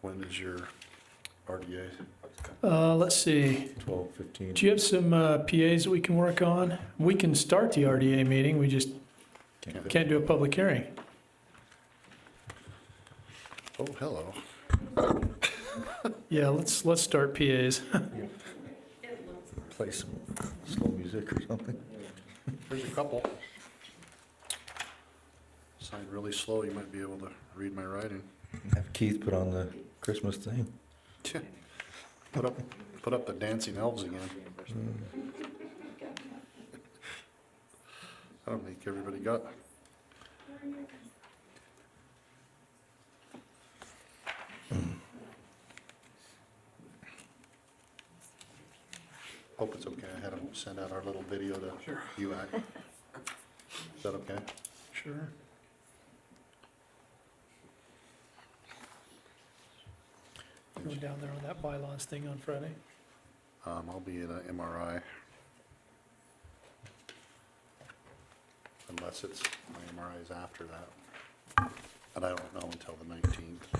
when is your RDA? Uh, let's see. Twelve, fifteen? Do you have some uh, PAs that we can work on? We can start the RDA meeting, we just can't do a public hearing. Oh, hello. Yeah, let's, let's start PAs. Play some slow music or something. There's a couple. Sign really slow, you might be able to read my writing. Have Keith put on the Christmas thing. Put up, put up the dancing elves again. I don't think everybody got. Hope it's okay. I had them send out our little video to you. Ack. Is that okay? Sure. Going down there on that bylaws thing on Friday. Um, I'll be in a MRI. Unless it's, my MRI is after that. And I don't know until the nineteenth.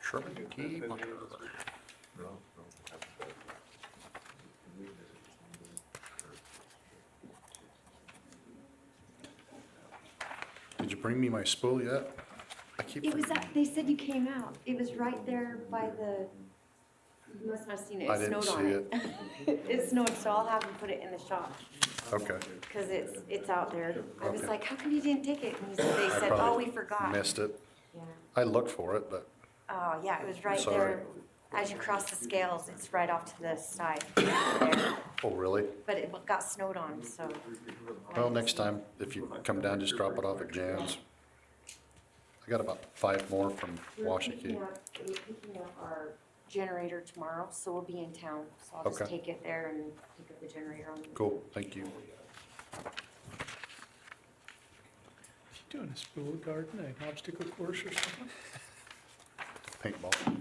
Sherman T. Bunker. Did you bring me my spool yet? I keep It was, forgetting. at- they said you came out. It was right there by the, you must not have seen it. I It didn't snowed on see it. It snowed, so I'll have them put it in the shop Okay. because it's, it's out there. I was Okay. like, how come you didn't take it? And he said- they I said, oh, probably we forgot. Missed it. Yeah. I looked for it, but Oh, yeah, it was right Sorry. there. As you cross the scales, it's right off to the side. Oh, really? But it got snowed on, so. Well, next time, if you come down, just drop it off at Jan's. I got about five more from We're Washakie. picking up- We're picking up our generator tomorrow, so we'll be in town. So I'll just Okay. take it there and pick up the generator on the Cool, thank you. Doing a spool garden, an obstacle course or something? Paintball.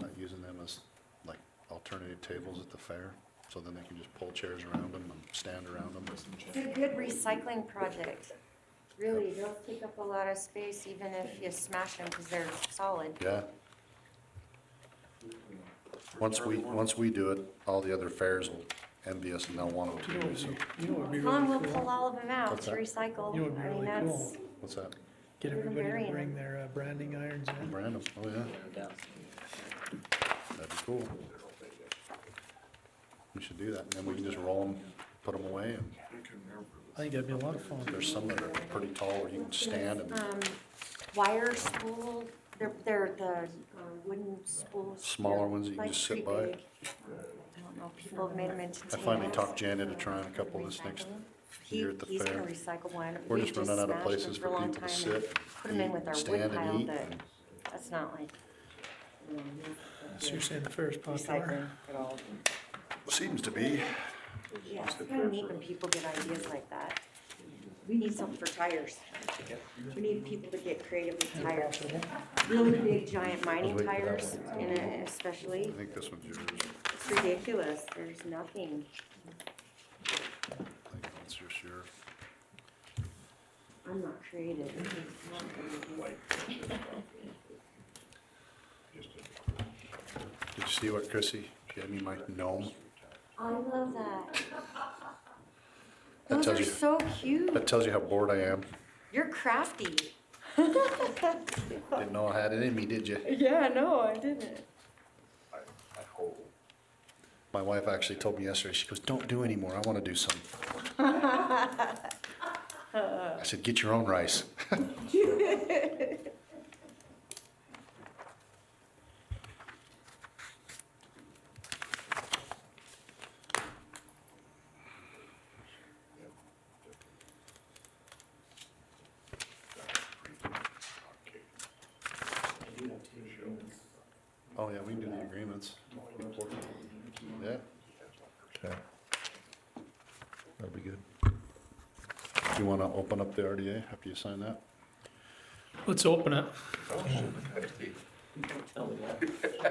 Not using them as like alternative tables at the fair, so then they can just pull chairs around them and stand around them. It's a good recycling project. Really, they'll take up a lot of space even if you smash them because they're solid. Yeah. Once we, once we do it, all the other fairs will envy us and they'll want You to know do what'd so. be- you know what'd be Con will really pull cool? all of them out to Okay. recycle. You know what'd be I mean, really that's, What's that? Get We're everybody to marrying bring them. their uh, branding irons in. Random, oh yeah. That'd be cool. We should do that, and then we can just roll them, put them away, and I think that'd be a lot of fun. there's some that are pretty tall where you can stand and um, wire spool, they're, they're the um, wooden spools. Smaller They're, ones that you can like, just sit pretty by. big. I don't know, people have made them into I tables. finally talked Jan into trying a couple this next Recycle them. year at the He- He's gonna fair. recycle one. We're We've just running out of smashed them places for a long people to time and sit, Put them in with our wood stand pile and eat. that, that's not like. you know, that's So you're saying the fair's popular? Recycling at all. Seems to be, Yeah, it's kind of neat when people get ideas like that. We need something for tires. We need people to get creative with tires. Really big giant mining tires in it I especially. think this one's yours, It's ridiculous. There's nothing. I think that's just yours. I'm not creative. I'm not creative. Did you see what Chrissy, she had me my gnome? I love that. That Those tells are you- so cute. That tells you how bored I am. You're crafty. Didn't know I had it in me, did you? Yeah, no, I didn't. My wife actually told me yesterday, she goes, don't do any more, I wanna do some. I said, get your own rice. Oh, yeah, we can do the agreements. Yeah, Okay. That'll be good. you wanna open up the RDA after you sign that? Let's open it.